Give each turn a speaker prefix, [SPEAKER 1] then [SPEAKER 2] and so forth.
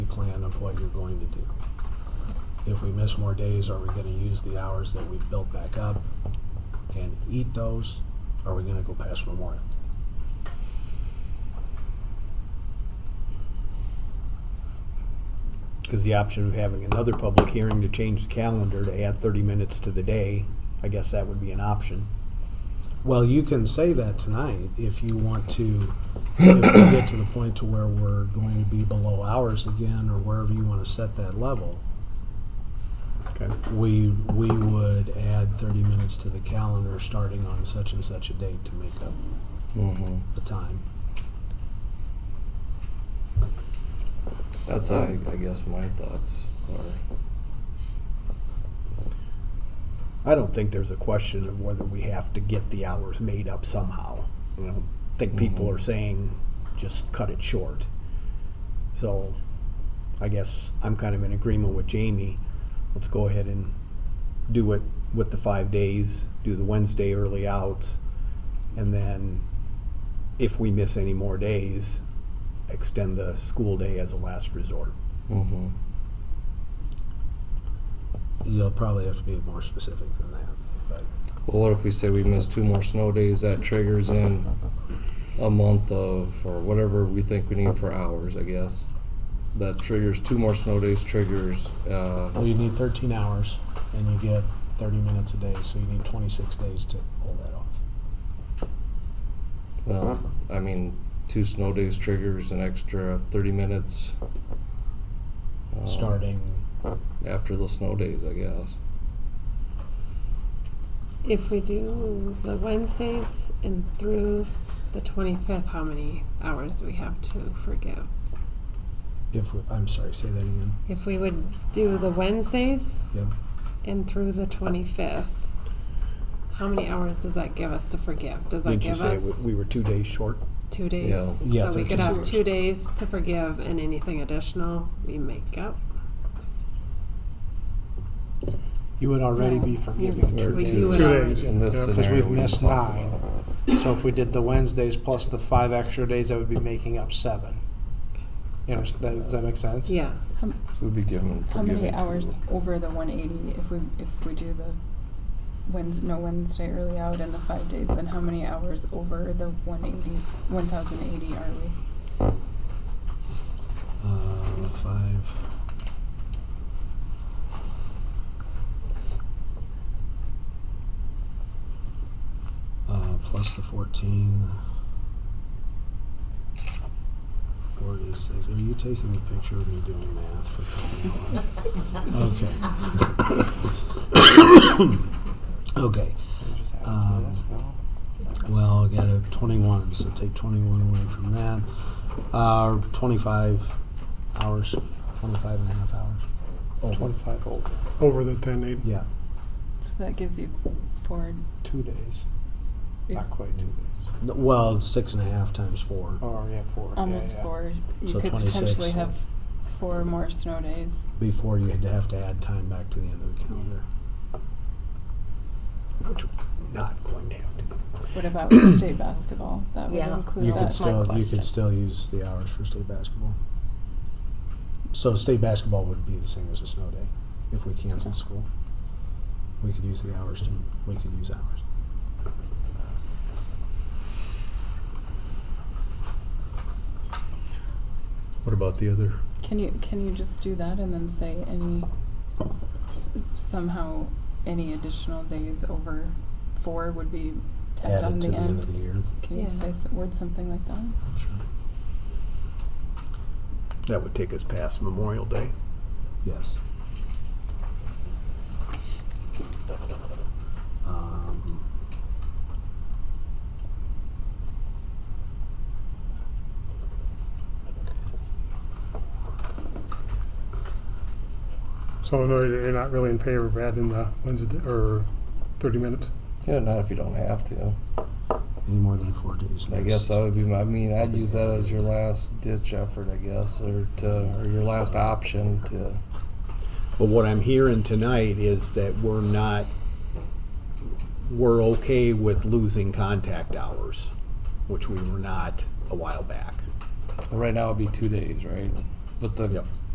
[SPEAKER 1] plan of what you're going to do. If we miss more days, are we gonna use the hours that we've built back up and eat those? Are we gonna go past Memorial Day?
[SPEAKER 2] Because the option of having another public hearing to change the calendar to add thirty minutes to the day, I guess that would be an option.
[SPEAKER 1] Well, you can say that tonight if you want to, if we get to the point to where we're going to be below hours again, or wherever you wanna set that level.
[SPEAKER 2] Okay.
[SPEAKER 1] We, we would add thirty minutes to the calendar starting on such and such a date to make up
[SPEAKER 3] Mm-hmm.
[SPEAKER 1] the time.
[SPEAKER 3] That's I, I guess my thoughts are.
[SPEAKER 2] I don't think there's a question of whether we have to get the hours made up somehow. I don't think people
[SPEAKER 4] Mm-hmm.
[SPEAKER 3] Mhm.
[SPEAKER 2] are saying just cut it short. So I guess I'm kind of in agreement with Jamie. Let's go ahead and do it with the five days, do the Wednesday early outs, and then if we miss any more days, extend the school day as a last resort.
[SPEAKER 3] Mm-hmm.
[SPEAKER 1] You'll probably have to be more specific than that, but
[SPEAKER 3] Well, what if we say we miss two more snow days? That triggers in a month of, or whatever we think we need for hours, I guess. That triggers two more snow days, triggers, uh,
[SPEAKER 1] well, you need 13 hours and you get 30 minutes a day, so you need 26 days to pull that off.
[SPEAKER 3] well, I mean, two snow days triggers an extra 30 minutes. um,
[SPEAKER 1] Starting,
[SPEAKER 3] After the snow days, I guess.
[SPEAKER 5] If we do the Wednesdays and through the 25th, how many hours do we have to forgive?
[SPEAKER 1] if we, I'm sorry, say that again.
[SPEAKER 5] If we would do the Wednesdays
[SPEAKER 1] Yep.
[SPEAKER 5] and through the 25th, how many hours does that give us to forgive? Does that
[SPEAKER 2] Didn't you
[SPEAKER 5] give
[SPEAKER 2] say
[SPEAKER 5] us
[SPEAKER 2] we we were two days short?
[SPEAKER 5] two days?
[SPEAKER 1] Yeah. Yeah,
[SPEAKER 5] so we could
[SPEAKER 1] 13
[SPEAKER 5] have
[SPEAKER 1] hours.
[SPEAKER 5] two days to forgive, and anything additional we make up.
[SPEAKER 6] You would already
[SPEAKER 5] Yeah.
[SPEAKER 6] be forgiving
[SPEAKER 3] Or
[SPEAKER 6] two
[SPEAKER 5] We-
[SPEAKER 6] days.
[SPEAKER 5] you would
[SPEAKER 4] Two
[SPEAKER 5] already-
[SPEAKER 4] days.
[SPEAKER 3] In this
[SPEAKER 4] Yeah,
[SPEAKER 3] scenario.
[SPEAKER 6] 'cause we've
[SPEAKER 3] we
[SPEAKER 6] missed
[SPEAKER 3] talked
[SPEAKER 6] nine.
[SPEAKER 3] about.
[SPEAKER 6] So if we did the Wednesdays plus the five extra days, that would be making up seven. You know, that, does that make sense?
[SPEAKER 5] Yeah.
[SPEAKER 7] How,
[SPEAKER 3] So we'd be given.
[SPEAKER 7] how many
[SPEAKER 3] forgiven
[SPEAKER 7] hours
[SPEAKER 3] two.
[SPEAKER 7] over the one eighty if we, if we do the Wednes, no Wednesday early out and the five days, then how many hours over the one eighty, one thousand eighty are we?
[SPEAKER 1] Uh, five. Uh, plus the 14. uh, 46. Are you taking a picture of me doing math for crying out loud? Okay. Okay.
[SPEAKER 6] So it just happens to be this,
[SPEAKER 4] Um,
[SPEAKER 6] no?
[SPEAKER 1] Well, I got a 21, so take 21 away from that. Uh, 25 hours, 25 and a half hours.
[SPEAKER 2] Oh.
[SPEAKER 1] Over.
[SPEAKER 6] Twenty-five over,
[SPEAKER 4] Over the ten eight.
[SPEAKER 1] Yeah.
[SPEAKER 7] So that gives you four,
[SPEAKER 6] two days, not quite two days.
[SPEAKER 1] N- Well, six and a half times four.
[SPEAKER 2] Oh,
[SPEAKER 6] Or, yeah, four, yeah,
[SPEAKER 7] almost
[SPEAKER 6] yeah.
[SPEAKER 7] four.
[SPEAKER 1] So
[SPEAKER 7] You could
[SPEAKER 1] 26.
[SPEAKER 7] potentially have four more snow days.
[SPEAKER 1] before you had to have to add time back to the end of the calendar.
[SPEAKER 2] Which we're not going to have to do.
[SPEAKER 7] What about state basketball? That would
[SPEAKER 8] Yeah.
[SPEAKER 7] include
[SPEAKER 1] You
[SPEAKER 7] that.
[SPEAKER 1] could still you
[SPEAKER 8] question.
[SPEAKER 1] could still use the hours for state basketball. So state basketball would be the same as a snow day if we canceled school. We could use the hours to we could use hours.
[SPEAKER 2] What about the other
[SPEAKER 7] Can you, can you just do that and then say any, s- somehow, any additional days over four would be tacked on
[SPEAKER 1] Added to the
[SPEAKER 7] the
[SPEAKER 1] end of
[SPEAKER 7] end?
[SPEAKER 1] the year.
[SPEAKER 7] Can you
[SPEAKER 5] Yeah.
[SPEAKER 7] say, s- word something like that?
[SPEAKER 1] Sure.
[SPEAKER 2] That would take us past Memorial Day.
[SPEAKER 1] Yes. Um,
[SPEAKER 4] So no, you're not really in favor of adding the Wednesday or thirty minutes.
[SPEAKER 3] Yeah, not if you don't have to.
[SPEAKER 1] any more than four days.
[SPEAKER 3] I
[SPEAKER 1] yes.
[SPEAKER 3] guess that would be my, I mean, I'd use that as your last ditch effort, I guess, or to, or your last option to.
[SPEAKER 2] But what I'm hearing tonight is that we're not, we're okay with losing contact hours, which we were not a while back.
[SPEAKER 3] Right now it'd be two days, right? But the
[SPEAKER 2] Yep.